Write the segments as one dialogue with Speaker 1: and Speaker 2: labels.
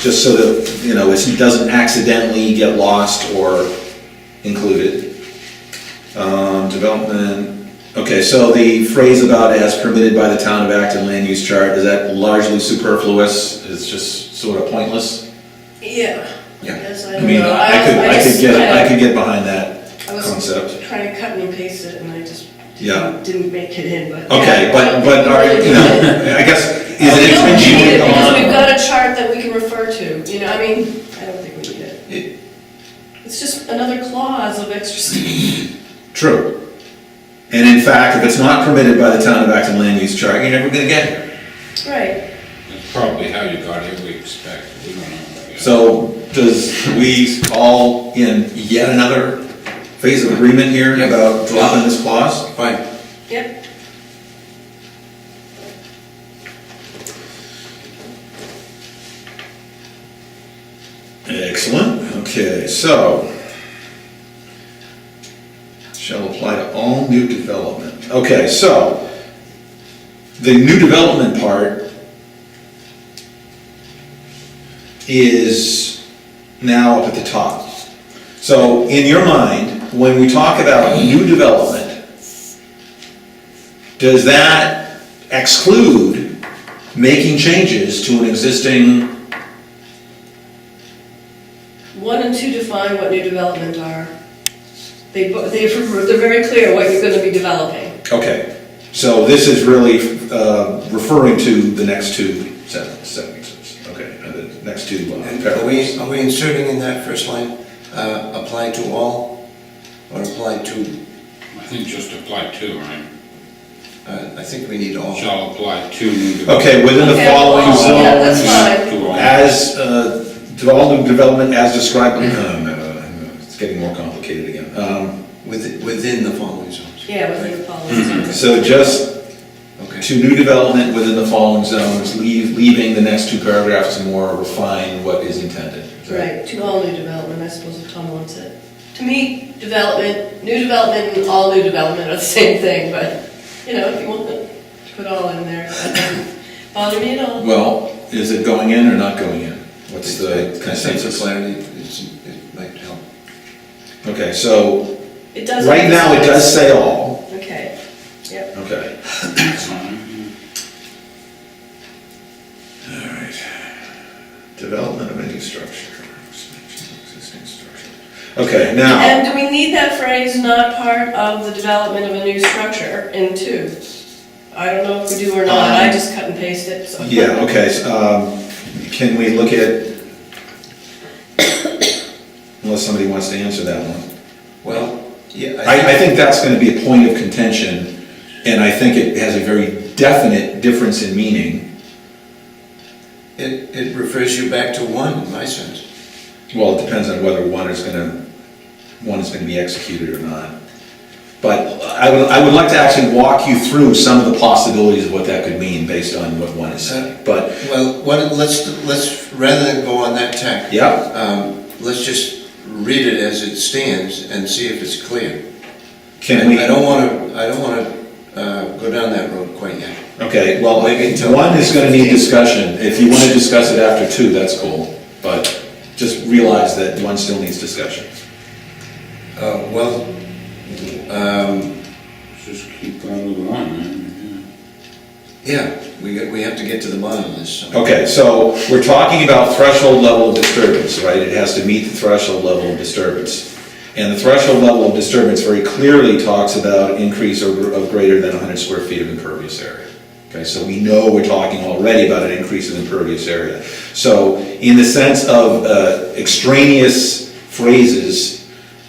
Speaker 1: just so that, you know, it's- it doesn't accidentally get lost or included. Um, development, okay, so the phrase about as permitted by the town of Acton land use chart, is that largely superfluous? It's just sort of pointless?
Speaker 2: Yeah.
Speaker 1: Yeah,
Speaker 2: Yes, I
Speaker 1: I mean,
Speaker 2: know.
Speaker 1: I could, I could
Speaker 2: just
Speaker 1: get, I
Speaker 2: kinda-
Speaker 1: could get behind that
Speaker 2: I was-
Speaker 1: concept.
Speaker 2: Trying to cut and paste it and I just
Speaker 1: Yeah.
Speaker 2: didn't didn't make it in, but.
Speaker 1: Okay, but, but, are you know, I guess, is
Speaker 2: We
Speaker 1: it
Speaker 2: don't need it
Speaker 1: infringing
Speaker 2: because we've
Speaker 1: on?
Speaker 2: got a chart that we can refer to, you know, I mean, I don't think we need it.
Speaker 1: It-
Speaker 2: It's just another clause of extra stuff.
Speaker 1: True. And in fact, if it's not permitted by the town of Acton land use chart, you're never gonna get here.
Speaker 2: Right.
Speaker 3: That's probably how you got here, we expect, we don't know.
Speaker 1: So does we all in yet another phase of agreement here
Speaker 3: Yeah.
Speaker 1: about dropping this clause?
Speaker 3: Fine.
Speaker 2: Yep.
Speaker 1: Excellent, okay, so. Shall apply to all new development. Okay, so the new development part is now up at the top. So in your mind, when we talk about new development, does that exclude making changes to an existing
Speaker 2: One and two define what new development are. They, bo- they, they're very clear what you're gonna be developing.
Speaker 1: Okay, so this is really uh, referring to the next two sen- sentences, okay, uh, the next two uh,
Speaker 4: And Are we,
Speaker 1: paragraphs.
Speaker 4: are we inserting in that first line, uh, apply to all, or apply to,
Speaker 3: I think just apply to, right?
Speaker 4: uh, I think we need all.
Speaker 3: Shall apply to new development.
Speaker 1: Okay, within the
Speaker 2: Okay,
Speaker 1: following
Speaker 2: well, yeah, that's
Speaker 1: zones,
Speaker 2: fine.
Speaker 3: To all.
Speaker 1: as, uh, development, development as described, um, uh, it's getting more complicated again. Um,
Speaker 4: Within, within the following zones.
Speaker 2: Yeah, within the policy.
Speaker 1: So just
Speaker 4: Okay,
Speaker 1: to new development within the following zones, leave, leaving the next two paragraphs to more refine what is intended. Is that-
Speaker 2: Right, to all new development, I suppose if Tom wants it. To me, development, new development and all new development are the same thing, but, you know, if you want to put all in there, that doesn't bother me at all.
Speaker 1: Well, is it going in or not going in? What's the
Speaker 4: I think for
Speaker 1: consensus?
Speaker 4: clarity, it's, it might help.
Speaker 1: Okay, so
Speaker 2: It does.
Speaker 1: Right now, it does say all.
Speaker 2: Okay, yep.
Speaker 1: Okay.
Speaker 3: Fine.
Speaker 1: All right. Development of any structure. expansion of existing structure. Okay, now,
Speaker 2: And do we need that phrase, not part of the development of a new structure, in two? I don't know if we do or not, I just cut and paste it, so.
Speaker 1: Uh, yeah, okay, so, um, can we look at, unless somebody wants to answer that one.
Speaker 4: Well, yeah.
Speaker 1: I, I think that's gonna be a point of contention, and I think it has a very definite difference in meaning.
Speaker 4: It, it refers you back to one, in my sense.
Speaker 1: Well, it depends on whether one is gonna, one is gonna be executed or not. But I would, I would like to actually walk you through some of the possibilities of what that could mean based on what one is saying. But,
Speaker 4: Well, what, let's, let's, rather than go on that tack.
Speaker 1: yeah,
Speaker 4: Um, let's just read it as it stands and see if it's clear.
Speaker 1: can we,
Speaker 4: I don't wanna, I don't wanna, uh, go down that road quite yet.
Speaker 1: okay, well,
Speaker 4: Maybe until-
Speaker 1: one is gonna need discussion. If you wanna discuss it after two, that's cool. But just realize that one still needs discussion.
Speaker 4: Uh, well, um,
Speaker 3: Just keep on with one,
Speaker 4: yeah, we, got- we have to get to the bottom of this. so.
Speaker 1: Okay, so we're talking about threshold level of disturbance, right? It has to meet the threshold level of disturbance. And the threshold level of disturbance very clearly talks about increase of of greater than 100 square feet of impervious area. Okay, so we know we're talking already about an increase of impervious area. So in the sense of uh, extraneous phrases,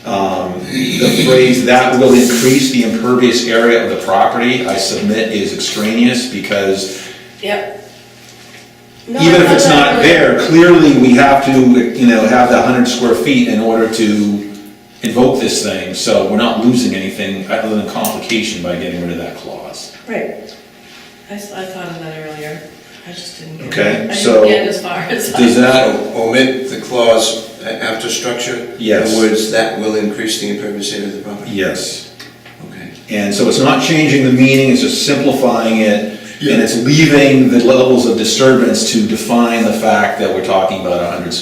Speaker 1: um, the phrase "that will increase the impervious area of the property," I submit is extraneous because
Speaker 2: Yep. No,
Speaker 1: even if
Speaker 2: I'm
Speaker 1: it's not
Speaker 2: really-
Speaker 1: there, clearly we have to, you know, have the hundred square feet in order to invoke this thing, so we're not losing anything other than complication by getting rid of that clause.
Speaker 2: Right. I, s- I thought of that earlier. I just didn't get it.
Speaker 1: Okay,
Speaker 2: I
Speaker 1: so
Speaker 2: didn't get as far as
Speaker 1: Does
Speaker 2: I.
Speaker 1: that,
Speaker 4: So omit the clause a- after structure?
Speaker 1: Yes.
Speaker 4: The words, that will increase the impervious area of the property?
Speaker 1: yes,
Speaker 4: Okay.
Speaker 1: and so it's not changing the meaning, it's just simplifying it And it's leaving the levels of disturbance to define the fact that we're talking about 100